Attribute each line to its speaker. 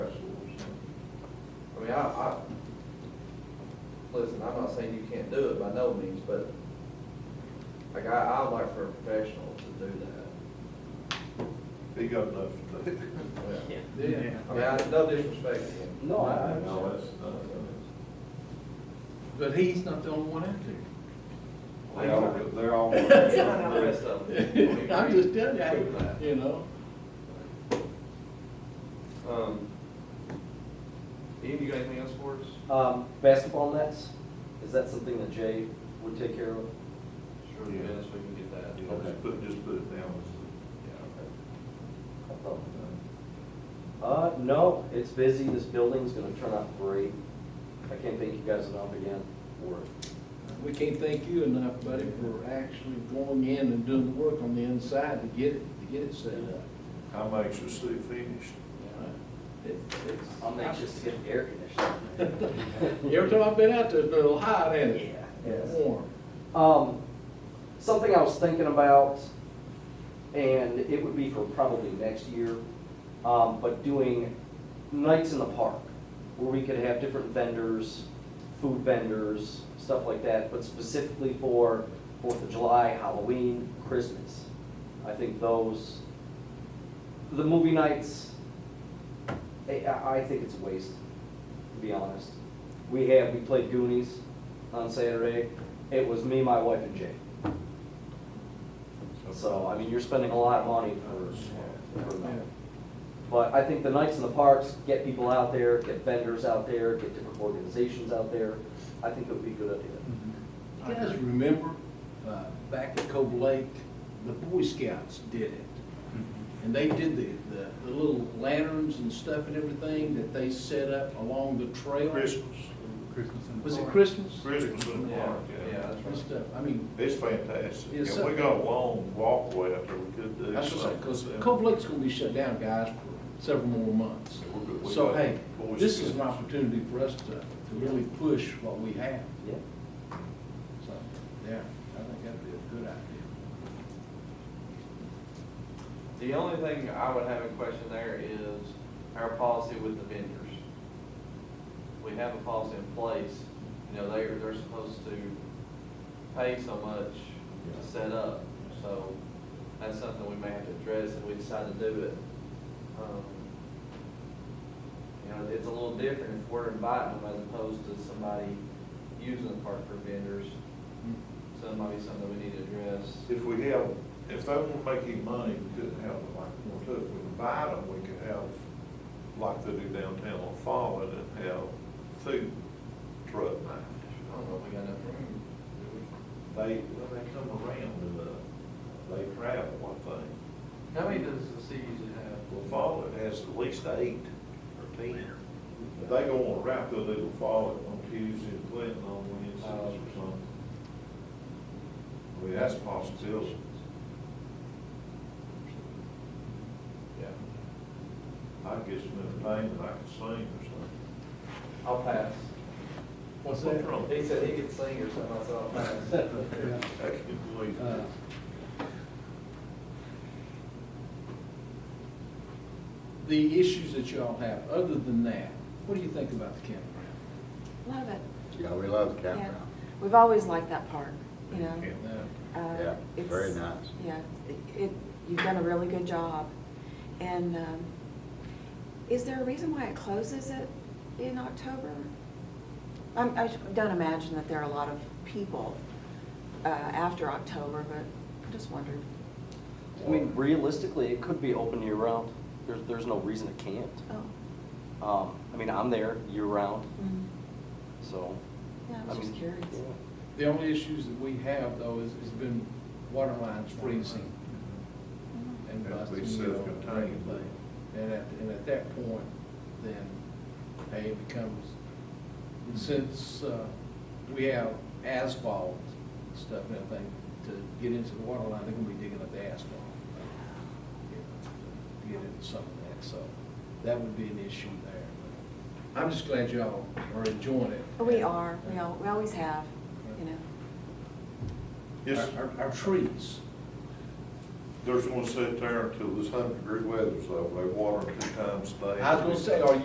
Speaker 1: mean, I, I, listen, I'm not saying you can't do it by no means, but like, I, I would like for a professional to do
Speaker 2: Big up enough.
Speaker 1: that. Yeah.
Speaker 3: Yeah.
Speaker 1: I mean, I, no disrespect to him.
Speaker 4: No, I,
Speaker 2: No, that's not.
Speaker 3: But he's not the only one out
Speaker 2: They all, they're all.
Speaker 1: The rest of them.
Speaker 3: there. I'm just telling you, I ain't lying.
Speaker 4: you know,
Speaker 1: Um, Ian, you got anything else for us?
Speaker 5: Um, basketball nets, is that something that Jay would take care of?
Speaker 1: Sure, yes, we can get that.
Speaker 2: You know, Just put, just put it down.
Speaker 1: Yeah,
Speaker 5: I thought, Uh, no, it's busy, this building's gonna turn out great. I can't thank you guys enough again for it.
Speaker 4: we can't thank you enough, buddy, for actually going in and doing the work on the inside to get it, to get it set up.
Speaker 2: I'm anxious to see it finished.
Speaker 4: It- it's-
Speaker 5: I'm anxious to get air conditioning.
Speaker 4: Every time I've been out there, it's been a little hot, ain't it?
Speaker 5: Yes.
Speaker 4: Warm.
Speaker 5: Um, something I was thinking about, and it would be for probably next year, um, but doing nights in the park, where we could have different vendors, food vendors, stuff like that, but specifically for Fourth of July, Halloween, Christmas. I think those, the movie nights, I, I I think it's a waste, to be honest. We have, we played Goonies on Saturday. It was me, my wife, and Jay. So, I mean, you're spending a lot of money for, for that. But I think the nights in the parks, get people out there, get vendors out there, get different organizations out there. I think it would be a good idea.
Speaker 4: You guys remember, uh, back at Cold Lake, the Boy Scouts did it. And they did the, the, the little lanterns and stuff and everything that they set up along the trail.
Speaker 2: Christmas,
Speaker 3: Christmas in the
Speaker 4: Was it
Speaker 3: park.
Speaker 4: Christmas?
Speaker 2: Christmas in the park,
Speaker 1: yeah,
Speaker 2: yeah.
Speaker 1: that's
Speaker 4: And
Speaker 1: right.
Speaker 4: stuff, I mean,
Speaker 2: It's fantastic.
Speaker 4: Yes,
Speaker 2: And we
Speaker 4: sir.
Speaker 2: got a long walkway up there, we could do something.
Speaker 4: that's what I said, cause Cold Lake's gonna be shut down, guys, for several more months.
Speaker 2: Yeah, we're good. We
Speaker 4: So,
Speaker 2: got
Speaker 4: hey,
Speaker 2: Boy
Speaker 4: this is an
Speaker 2: Scouts.
Speaker 4: opportunity for us to, to really push what we have,
Speaker 5: Yeah.
Speaker 4: so, yeah, I think that'd be a good idea.
Speaker 1: The only thing I would have a question there is our policy with the vendors. We have a policy in place, you know, they're, they're supposed to pay so much to set up. So that's something we may have to address if we decide to do it. Um, You know, it's a little different if we're inviting them as opposed to somebody using the park for vendors. So that might be something we need to address.
Speaker 2: If we have, if they want to make any money, we couldn't have them like we want to. If we invite them, we could have, like they do downtown on Fallon, and have food truck night.
Speaker 1: I don't know if we got enough room. do we?
Speaker 2: They, when they come around, and, uh, they travel, I think.
Speaker 1: How many does the city usually have?
Speaker 2: Well, Fallon has at least eight or ten. But They go on a route, they'll do the Fallon on Tuesday, and Clinton on Wednesdays or something. I mean, that's a possibility.
Speaker 1: Yeah.
Speaker 2: I guess some entertainment, I can sing or something.
Speaker 1: I'll pass.
Speaker 4: What's
Speaker 2: What's wrong?
Speaker 1: He said he could sing or something, I said, I'll pass.
Speaker 2: I can believe
Speaker 4: Uh,
Speaker 2: it.
Speaker 4: The issues that y'all have, other than that, what do you think about the campground?
Speaker 6: Love it.
Speaker 7: Yeah, we love the
Speaker 6: yeah.
Speaker 7: campground.
Speaker 6: We've always liked that park, you know?
Speaker 2: Yeah.
Speaker 6: Uh,
Speaker 7: Yeah,
Speaker 6: it's-
Speaker 7: very nice.
Speaker 6: Yeah, it- it, you've done a really good job. And um, is there a reason why it closes it in October? I'm- I don't imagine that there are a lot of people uh, after October, but I just wondered.
Speaker 5: I mean, realistically, it could be open year-round. There's, there's no reason it can't.
Speaker 6: Oh.
Speaker 5: Um, I mean, I'm there year-round,
Speaker 6: mm.
Speaker 5: so.
Speaker 6: Yeah, I was just
Speaker 5: mean,
Speaker 6: curious.
Speaker 5: yeah.
Speaker 4: The only issues that we have, though, is, has been water lines freezing
Speaker 6: Mm.
Speaker 4: and
Speaker 2: Have to be
Speaker 4: busting, you know, and
Speaker 2: self-contained.
Speaker 4: everything. And at, and at that point, then, hey, it becomes, since, uh, we have asphalt stuff and everything, to get into the water line, they're gonna be digging up the asphalt. you know, to Get into some of that, so that would be an issue there. I'm just glad y'all are enjoying it.
Speaker 6: We are, we al- we always have, you know?
Speaker 2: Yes,
Speaker 4: Our, our- our trees.
Speaker 2: there's one set there until this hundred degree weather's over, they water two times a day.
Speaker 4: I was gonna say, are you